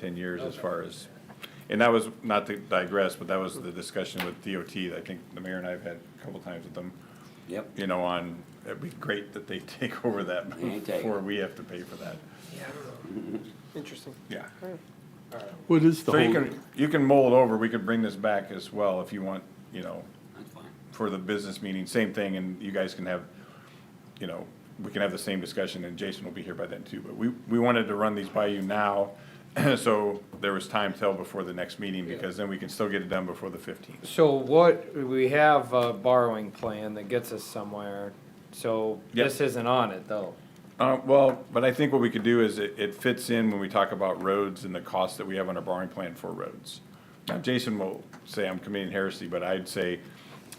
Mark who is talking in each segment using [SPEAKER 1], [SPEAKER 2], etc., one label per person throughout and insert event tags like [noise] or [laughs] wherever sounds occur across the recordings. [SPEAKER 1] ten years as
[SPEAKER 2] Okay.
[SPEAKER 1] far as, and that was, not to digress, but that was the discussion with DOT, that I think the mayor and I have had a couple times with them,
[SPEAKER 3] Yep.
[SPEAKER 1] you know, on, it'd be great that they [laughs] take over that
[SPEAKER 3] They take it.
[SPEAKER 1] before we have to pay for that,
[SPEAKER 2] Yeah, I don't know. Interesting.
[SPEAKER 1] yeah.
[SPEAKER 2] All right.
[SPEAKER 4] What is the
[SPEAKER 1] So you
[SPEAKER 4] whole,
[SPEAKER 1] can, you can mold over, we could bring this back as well if you want, you know,
[SPEAKER 3] That's fine.
[SPEAKER 1] for the business meeting, same thing, and you guys can have, you know, we can have the same discussion, and Jason will be here by then too, but we, we wanted to run these by you now, [clears throat] so there was time till before the next meeting, because then we can still get it done before the fifteenth.
[SPEAKER 5] So what, we have a borrowing plan that gets us somewhere, so
[SPEAKER 1] Yep.
[SPEAKER 5] this isn't on it though.
[SPEAKER 1] Uh, well, but I think what we could do is it, it fits in when we talk about roads and the cost that we have on our borrowing plan for roads. Now, Jason will say I'm committing heresy, but I'd say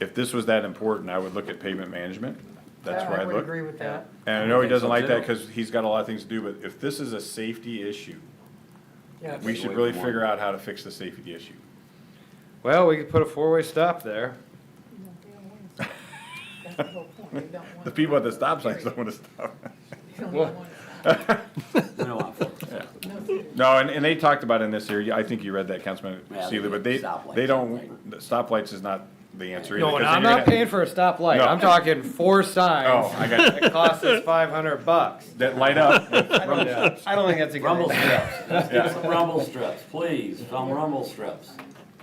[SPEAKER 1] if this was that important, I would look at pavement management. That's where I'd
[SPEAKER 6] would
[SPEAKER 1] look.
[SPEAKER 6] agree with that.
[SPEAKER 1] And I know he
[SPEAKER 3] I think so,
[SPEAKER 1] doesn't like that
[SPEAKER 3] too.
[SPEAKER 1] because he's got a lot of things to do, but if this is a safety issue,
[SPEAKER 6] Yes.
[SPEAKER 1] we
[SPEAKER 3] Stay
[SPEAKER 1] should
[SPEAKER 3] away
[SPEAKER 1] really
[SPEAKER 3] from
[SPEAKER 1] figure
[SPEAKER 3] one.
[SPEAKER 1] out how to fix the safety issue.
[SPEAKER 5] Well, we could put a four-way stop there.
[SPEAKER 6] That's the whole point. You don't
[SPEAKER 1] [laughs]
[SPEAKER 6] want
[SPEAKER 1] The people at the
[SPEAKER 6] to-
[SPEAKER 1] stop signs don't want to
[SPEAKER 3] [laughs]
[SPEAKER 1] stop.
[SPEAKER 6] You don't
[SPEAKER 5] Well-
[SPEAKER 6] want to-
[SPEAKER 3] We don't want folks.
[SPEAKER 6] no, seriously.
[SPEAKER 1] No, and, and they talked about in this area, I think you read that, Councilman
[SPEAKER 3] Yeah, they
[SPEAKER 1] Seeley, but they,
[SPEAKER 3] did stoplights,
[SPEAKER 1] they don't, the stoplights is not the answer either.
[SPEAKER 5] No, and
[SPEAKER 1] 'cause
[SPEAKER 5] I'm
[SPEAKER 1] then you're
[SPEAKER 5] not
[SPEAKER 1] gonna-
[SPEAKER 5] paying for a stoplight,
[SPEAKER 1] No.
[SPEAKER 5] I'm
[SPEAKER 3] [laughs]
[SPEAKER 5] talking four
[SPEAKER 1] Oh,
[SPEAKER 5] signs
[SPEAKER 1] I
[SPEAKER 5] [laughs]
[SPEAKER 1] got,
[SPEAKER 5] that cost us five hundred bucks.
[SPEAKER 1] that light up.
[SPEAKER 5] I don't know. I don't think that's a good
[SPEAKER 3] Rumble
[SPEAKER 5] idea.
[SPEAKER 3] strips. Let's get some rumble strips, please. Some rumble strips.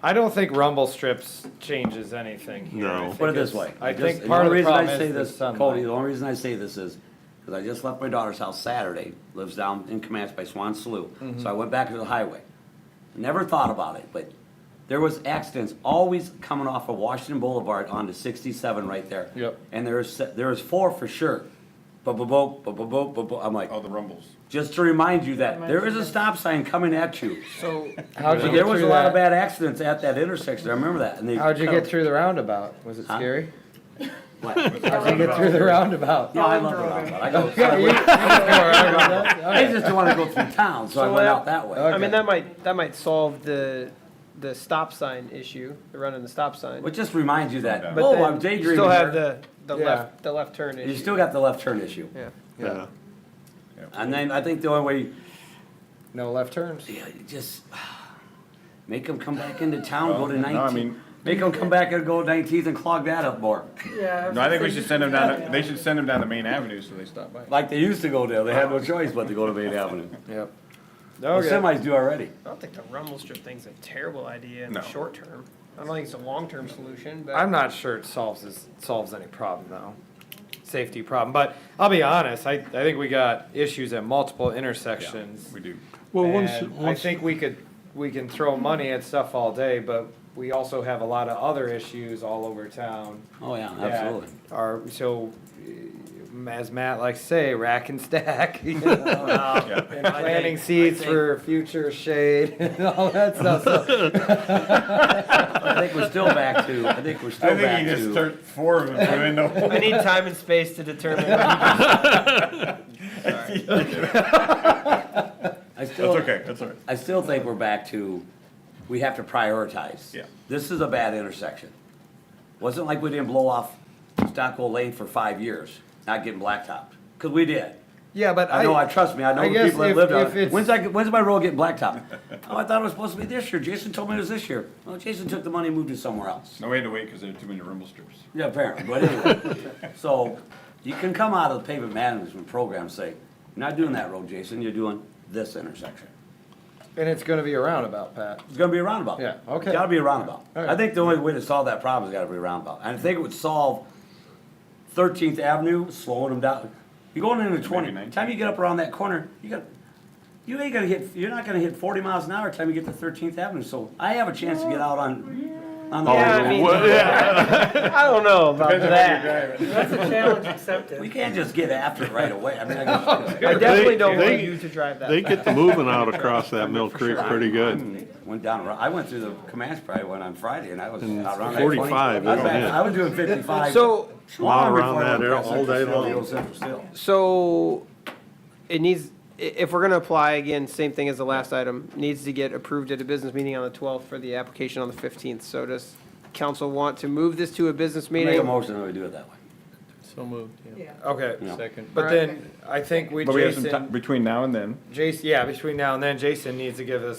[SPEAKER 5] I don't think rumble strips changes anything here. I
[SPEAKER 4] No.
[SPEAKER 5] think
[SPEAKER 3] Put it this
[SPEAKER 5] it's-
[SPEAKER 3] way.
[SPEAKER 5] I
[SPEAKER 3] just-
[SPEAKER 5] think part of
[SPEAKER 3] only
[SPEAKER 5] the
[SPEAKER 3] reason I
[SPEAKER 5] problem
[SPEAKER 3] say
[SPEAKER 5] is the
[SPEAKER 3] this, Cody, the
[SPEAKER 5] sunlight.
[SPEAKER 3] only reason I say this is, cause I just left my daughter's house Saturday, lives down in Comanche by Swan Slough,
[SPEAKER 5] Mm-hmm.
[SPEAKER 3] so I went back to the highway. Never thought about it, but there was accidents always coming off of Washington Boulevard onto sixty-seven right there.
[SPEAKER 5] Yep.
[SPEAKER 3] And there's, there's four for sure. Ba-ba-bo, ba-ba-bo, ba-bo, I'm like,
[SPEAKER 1] All the rumbles.
[SPEAKER 3] just to remind you that there is a stop sign coming at you.
[SPEAKER 2] So,
[SPEAKER 5] How'd you
[SPEAKER 3] There
[SPEAKER 5] get
[SPEAKER 3] was a
[SPEAKER 5] through
[SPEAKER 3] lot of
[SPEAKER 5] that?
[SPEAKER 3] bad accidents at that intersection, I remember that, and they.
[SPEAKER 5] How'd you
[SPEAKER 3] cut 'em.
[SPEAKER 5] get through the roundabout? Was it
[SPEAKER 3] Huh?
[SPEAKER 5] scary?
[SPEAKER 3] What?
[SPEAKER 5] How'd you get through the roundabout?
[SPEAKER 3] No, I love the roundabout. I
[SPEAKER 5] [laughs]
[SPEAKER 3] go sideways. I just don't wanna go through town, so I
[SPEAKER 2] So
[SPEAKER 3] went
[SPEAKER 2] that-
[SPEAKER 3] out that way.
[SPEAKER 2] I mean, that might, that might solve the, the stop sign issue, the running the stop sign.
[SPEAKER 3] But just reminds you that,
[SPEAKER 2] But
[SPEAKER 3] oh,
[SPEAKER 2] then
[SPEAKER 3] I'm
[SPEAKER 2] You
[SPEAKER 3] daydreaming
[SPEAKER 2] still have
[SPEAKER 3] here.
[SPEAKER 2] the, the
[SPEAKER 5] Yeah.
[SPEAKER 2] left, the left turn issue.
[SPEAKER 3] You still got the left turn issue.
[SPEAKER 2] Yeah.
[SPEAKER 4] yeah.
[SPEAKER 3] And then I think the only way,
[SPEAKER 5] No left turns.
[SPEAKER 3] yeah, you just [sighs] make them come back into town, go to
[SPEAKER 1] Well, no, I
[SPEAKER 3] nineteen.
[SPEAKER 1] mean-
[SPEAKER 3] Make them come back and go nineteenth and clog that up more,
[SPEAKER 6] Yeah.
[SPEAKER 1] No, I think we should send them down, they should send them down the main avenue so they stop by.
[SPEAKER 3] like they used to go there. They had no choice but to go to Main Avenue.
[SPEAKER 5] Yep.
[SPEAKER 3] Well, Semis do already.
[SPEAKER 2] I don't think the rumble strip thing's a terrible idea in
[SPEAKER 1] No.
[SPEAKER 2] the short term. I don't think it's a long-term solution, but.
[SPEAKER 5] I'm not sure it solves this, solves any problem though, safety problem. But I'll be honest, I, I think we got issues at multiple intersections.
[SPEAKER 1] We do.
[SPEAKER 4] Well, once,
[SPEAKER 5] And I
[SPEAKER 4] once,
[SPEAKER 5] think we could, we can throw money at stuff all day, but we also have a lot of other issues all over town.
[SPEAKER 3] Oh, yeah,
[SPEAKER 5] that
[SPEAKER 3] absolutely.
[SPEAKER 5] Are, so, eh, as Matt likes to say, rack and stack, [laughs] you know?
[SPEAKER 1] Yeah.
[SPEAKER 5] and planting seeds for future shade [laughs] and all
[SPEAKER 1] [laughs]
[SPEAKER 5] that stuff. So,
[SPEAKER 3] [laughs] I think we're still back to, I think we're
[SPEAKER 1] I
[SPEAKER 3] still back
[SPEAKER 1] think he just
[SPEAKER 3] to.
[SPEAKER 1] turned four of them in the [laughs]
[SPEAKER 3] [laughs]
[SPEAKER 2] I need time and space to determine. when you-
[SPEAKER 3] I still-
[SPEAKER 1] That's okay, that's all right.
[SPEAKER 3] I still think we're back to, we have to prioritize.
[SPEAKER 1] Yeah.
[SPEAKER 3] This is a bad intersection. Wasn't like we didn't blow off Stockwell Lane for five years, not getting blacktopped, because we did.
[SPEAKER 5] Yeah, but I.
[SPEAKER 3] I know, I trust me, I
[SPEAKER 5] I
[SPEAKER 3] know the
[SPEAKER 5] guess
[SPEAKER 3] people that
[SPEAKER 5] if-
[SPEAKER 3] lived
[SPEAKER 5] if
[SPEAKER 3] on it.
[SPEAKER 5] it's-
[SPEAKER 3] When's that, when's my road getting blacktopped? [laughs] Oh, I thought it was supposed to be this year, Jason told me it was this year. Well, Jason took the money and moved it somewhere else.
[SPEAKER 1] No, we had to wait because there are too many rumble strips.
[SPEAKER 3] Yeah, apparently, but
[SPEAKER 5] [laughs]
[SPEAKER 3] anyway, so you can come out of the pavement management program, and say, you're not doing that road, Jason, you're doing this intersection.
[SPEAKER 5] And it's gonna be a roundabout, Pat.
[SPEAKER 3] It's gonna be a roundabout.
[SPEAKER 5] Yeah, okay.
[SPEAKER 3] It's gotta be a roundabout.
[SPEAKER 5] All right.
[SPEAKER 3] I think the only way to solve that problem is gotta be a roundabout. And I think it would solve Thirteenth Avenue, slowing them down. You're going into twenty, by the
[SPEAKER 1] 19.
[SPEAKER 3] time you get up around that corner, you got, you ain't gonna hit, you're not gonna hit forty miles an hour by the time you get to Thirteenth Avenue, so I have a chance to get out on, on the.
[SPEAKER 2] Yeah, I mean, I don't know about that.
[SPEAKER 6] That's a challenge accepted.
[SPEAKER 3] We can't just get after it right away. I mean, I guess-
[SPEAKER 2] I definitely don't want
[SPEAKER 4] They-
[SPEAKER 2] you to drive that.
[SPEAKER 4] they get the moving out across that Mill Creek pretty good.
[SPEAKER 3] Went down, around- I went through the Comanche probably one on Friday and I was around that 20
[SPEAKER 4] 45,
[SPEAKER 3] I was
[SPEAKER 4] isn't
[SPEAKER 3] back-
[SPEAKER 4] it?
[SPEAKER 3] I was doing fifty-five.
[SPEAKER 2] So,
[SPEAKER 4] Lot around
[SPEAKER 3] Long before I
[SPEAKER 4] that
[SPEAKER 3] went
[SPEAKER 4] area
[SPEAKER 3] past
[SPEAKER 4] all day
[SPEAKER 3] Central Hill,
[SPEAKER 4] long.
[SPEAKER 3] Central Hill.
[SPEAKER 2] so it needs, i- if we're gonna apply, again, same thing as the last item, needs to get approved at a business meeting on the twelfth for the application on the fifteenth. So does council want to move this to a business
[SPEAKER 3] Make a
[SPEAKER 2] meeting?
[SPEAKER 3] motion that we do it that way.
[SPEAKER 7] So moved, yeah.
[SPEAKER 6] Yeah.
[SPEAKER 5] Okay.
[SPEAKER 3] Yeah.
[SPEAKER 7] Second.
[SPEAKER 5] But then, I think we,
[SPEAKER 1] But we have some
[SPEAKER 5] Jason,
[SPEAKER 1] time, between now and then.
[SPEAKER 5] Jason, yeah, between now and then, Jason needs to give us